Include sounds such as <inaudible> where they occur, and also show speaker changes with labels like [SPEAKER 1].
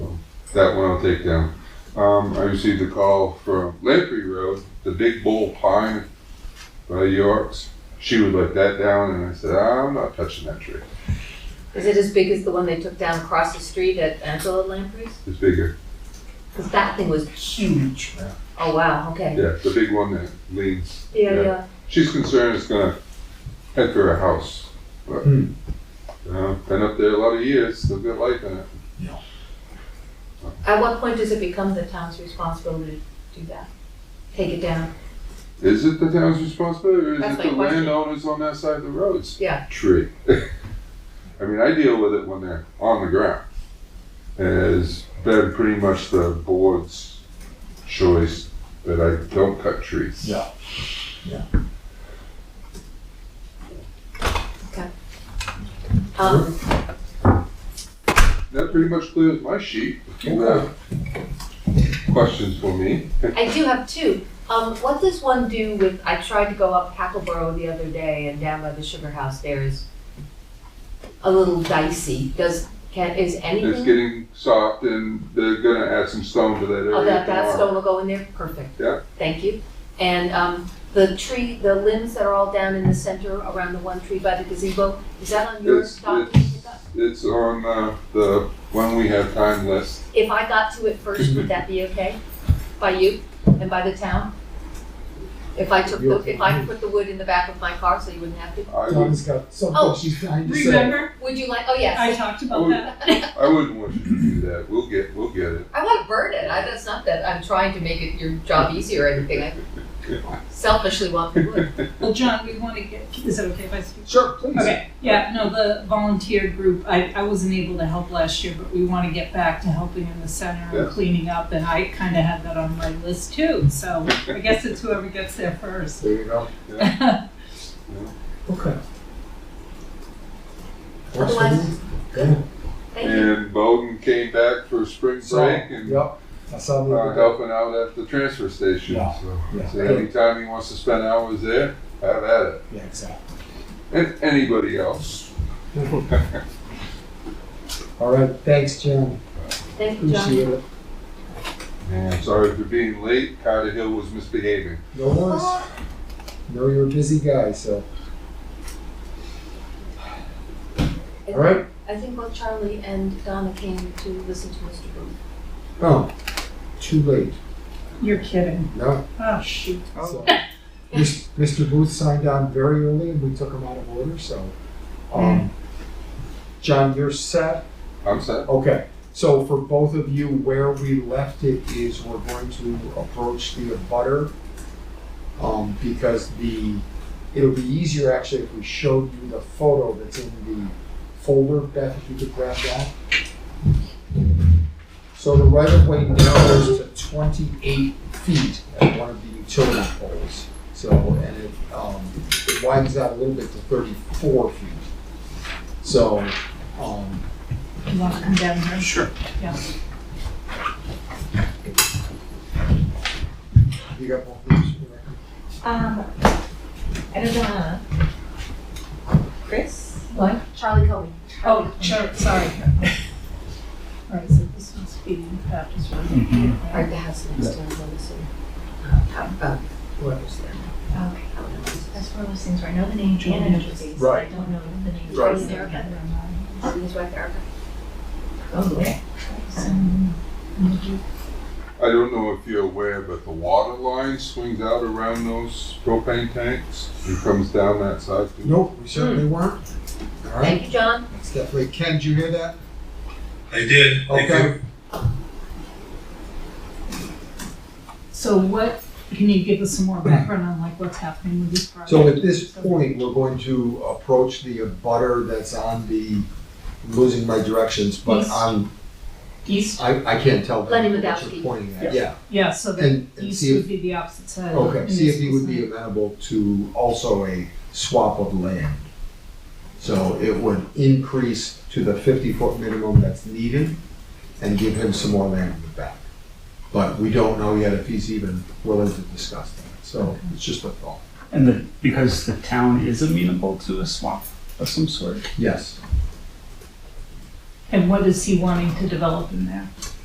[SPEAKER 1] That one I'll take down. Um, I received a call from Lamprey Road, the big bull pine by York's. She would let that down, and I said, I'm not touching that tree.
[SPEAKER 2] Is it as big as the one they took down across the street at Angela Lamprey's?
[SPEAKER 1] It's bigger.
[SPEAKER 2] Because that thing was huge. Oh, wow, okay.
[SPEAKER 1] Yeah, the big one that leans.
[SPEAKER 2] Yeah,
[SPEAKER 1] Yeah.
[SPEAKER 2] yeah.
[SPEAKER 1] She's concerned it's gonna head for her house, but
[SPEAKER 3] Hmm.
[SPEAKER 1] uh, been up there a lot of years. Still got life in it.
[SPEAKER 2] At what point does it become the town's responsibility to do that? Take it down?
[SPEAKER 1] Is it the town's responsibility, or is
[SPEAKER 2] That's
[SPEAKER 1] it
[SPEAKER 2] my
[SPEAKER 1] the
[SPEAKER 2] question.
[SPEAKER 1] landowners on that side of the roads?
[SPEAKER 2] Yeah.
[SPEAKER 1] Tree. <laughs> I mean, I deal with it when they're on the ground. And It's been pretty much the board's choice that I don't cut trees.
[SPEAKER 3] Yeah. Yeah.
[SPEAKER 2] Okay. Um,
[SPEAKER 1] That pretty much clears my sheet. If you have Questions for me?
[SPEAKER 2] I do have two. Um, what does one do with, I tried to go up Hackleboro the other day and down by the sugar house there is a little dicey. Does, can, is
[SPEAKER 1] It's
[SPEAKER 2] anything,
[SPEAKER 1] getting soft and they're gonna add some stone to that area
[SPEAKER 2] oh, that, that
[SPEAKER 1] tomorrow.
[SPEAKER 2] stone will go in there? Perfect.
[SPEAKER 1] Yeah.
[SPEAKER 2] Thank you. And, um, the tree, the limbs that are all down in the center around the one tree by the gazebo, is that on your
[SPEAKER 1] It's,
[SPEAKER 2] document?
[SPEAKER 1] it's, it's on, uh, the one we have time list.
[SPEAKER 2] If I got to it first, would that be okay? By you and by the town? If I took, the if I put the wood in the back of my car so you wouldn't have to?
[SPEAKER 1] I would,
[SPEAKER 3] Donna's got
[SPEAKER 2] Oh,
[SPEAKER 3] something she's trying to say.
[SPEAKER 4] Remember,
[SPEAKER 2] Would you like, oh
[SPEAKER 4] I
[SPEAKER 2] yes,
[SPEAKER 4] talked
[SPEAKER 1] I
[SPEAKER 4] about
[SPEAKER 1] would-
[SPEAKER 4] that.
[SPEAKER 1] I wouldn't want you to do that. We'll get, we'll get it.
[SPEAKER 2] I want to burn it, I, that's not that, I'm trying to make it your job easier or anything, I selfishly want the wood.
[SPEAKER 4] Well, John, we want to get, is it okay if I speak?
[SPEAKER 3] Sure, please.
[SPEAKER 4] Okay, yeah, no, the volunteer group, I, I wasn't able to help last year, but we want to get back to helping in the center and
[SPEAKER 1] Yeah.
[SPEAKER 4] cleaning up, and I kind of had that on my list too, so I guess it's whoever gets there first.
[SPEAKER 3] There you go. Okay. Works for
[SPEAKER 2] Otherwise-
[SPEAKER 3] me. Yeah.
[SPEAKER 2] Thank you.
[SPEAKER 1] And Bowden came back for spring
[SPEAKER 3] So,
[SPEAKER 1] break and
[SPEAKER 3] yep, I saw the
[SPEAKER 1] uh,
[SPEAKER 3] other day.
[SPEAKER 1] helping out at the transfer station.
[SPEAKER 3] Yeah,
[SPEAKER 1] So,
[SPEAKER 3] yeah.
[SPEAKER 1] so anytime he wants to spend hours there, have at it.
[SPEAKER 3] Yeah, exactly.
[SPEAKER 1] And anybody else.
[SPEAKER 3] All right, thanks, John.
[SPEAKER 2] Thank you, John.
[SPEAKER 3] Appreciate it.
[SPEAKER 1] And sorry for being late. Carter Hill was misbehaving.
[SPEAKER 3] No worries. Know you're a busy guy, so. All right.
[SPEAKER 2] I think both Charlie and Donna came to listen to Mr. Booth.
[SPEAKER 3] Oh, too late.
[SPEAKER 4] You're kidding.
[SPEAKER 3] No.
[SPEAKER 4] Oh, shoot.
[SPEAKER 3] So, Mis- Mr. Booth signed on very early and we took him out of order, so. um, John, you're set.
[SPEAKER 1] I'm set.
[SPEAKER 3] Okay, so for both of you, where we left it is we're going to approach the abutter. Um, because the, it'll be easier actually if we showed you the photo that's in the folder, Beth, if you could grab that. So the right of way narrows to twenty-eight feet at one of the utility poles. So, and it, um, it widens out a little bit to thirty-four feet. So, um,
[SPEAKER 4] You want to come down here?
[SPEAKER 5] Sure.
[SPEAKER 3] You got both of these?
[SPEAKER 6] Um, I don't know. uh, Chris?
[SPEAKER 4] What?
[SPEAKER 2] Charlie Cohen.
[SPEAKER 4] Oh, sure, sorry. All right, so this must be Baptist Road.
[SPEAKER 5] Mhm.
[SPEAKER 2] Or the house next to him, I'm assuming. How about whoever's there.
[SPEAKER 6] Okay, that's one of those things where I know the name and I know the face.
[SPEAKER 3] Right.
[SPEAKER 6] I don't know the name.
[SPEAKER 3] Right.
[SPEAKER 6] Is there a better one?
[SPEAKER 2] See his wife Erica? Oh,
[SPEAKER 6] Okay.
[SPEAKER 4] Mm-hmm.
[SPEAKER 1] I don't know if you're aware, but the water line swings out around those propane tanks and comes down that side. too.
[SPEAKER 3] Nope, we certainly
[SPEAKER 6] Hmm.
[SPEAKER 3] weren't. All
[SPEAKER 2] Thank
[SPEAKER 3] right,
[SPEAKER 2] you, John.
[SPEAKER 3] that's definitely, Ken, did you hear that?
[SPEAKER 7] I did. Thank you.
[SPEAKER 3] Okay,
[SPEAKER 4] So what, can you give us some more background on like what's happening with this project?
[SPEAKER 3] so at this point, we're going to approach the abutter that's on the, I'm losing my directions, but
[SPEAKER 4] East.
[SPEAKER 3] I'm,
[SPEAKER 4] East,
[SPEAKER 3] I, I can't tell.
[SPEAKER 2] Lenny
[SPEAKER 3] what you're
[SPEAKER 2] Wadowski.
[SPEAKER 3] Pointing at, yeah,
[SPEAKER 4] yeah, so the
[SPEAKER 3] and, and
[SPEAKER 4] east
[SPEAKER 3] see
[SPEAKER 4] would
[SPEAKER 3] if,
[SPEAKER 4] be the opposite side.
[SPEAKER 3] okay,
[SPEAKER 4] and
[SPEAKER 3] see if
[SPEAKER 4] this
[SPEAKER 3] he
[SPEAKER 4] is
[SPEAKER 3] would be
[SPEAKER 4] the-
[SPEAKER 3] amenable to also a swap of land. So it would increase to the fifty-foot minimum that's needed and give him some more land in the back. But we don't know yet if he's even willing to discuss that, so it's just a thought.
[SPEAKER 5] And the, because the town is amenable to a swap of some sort.
[SPEAKER 3] Yes.
[SPEAKER 4] And what is he wanting to develop in there?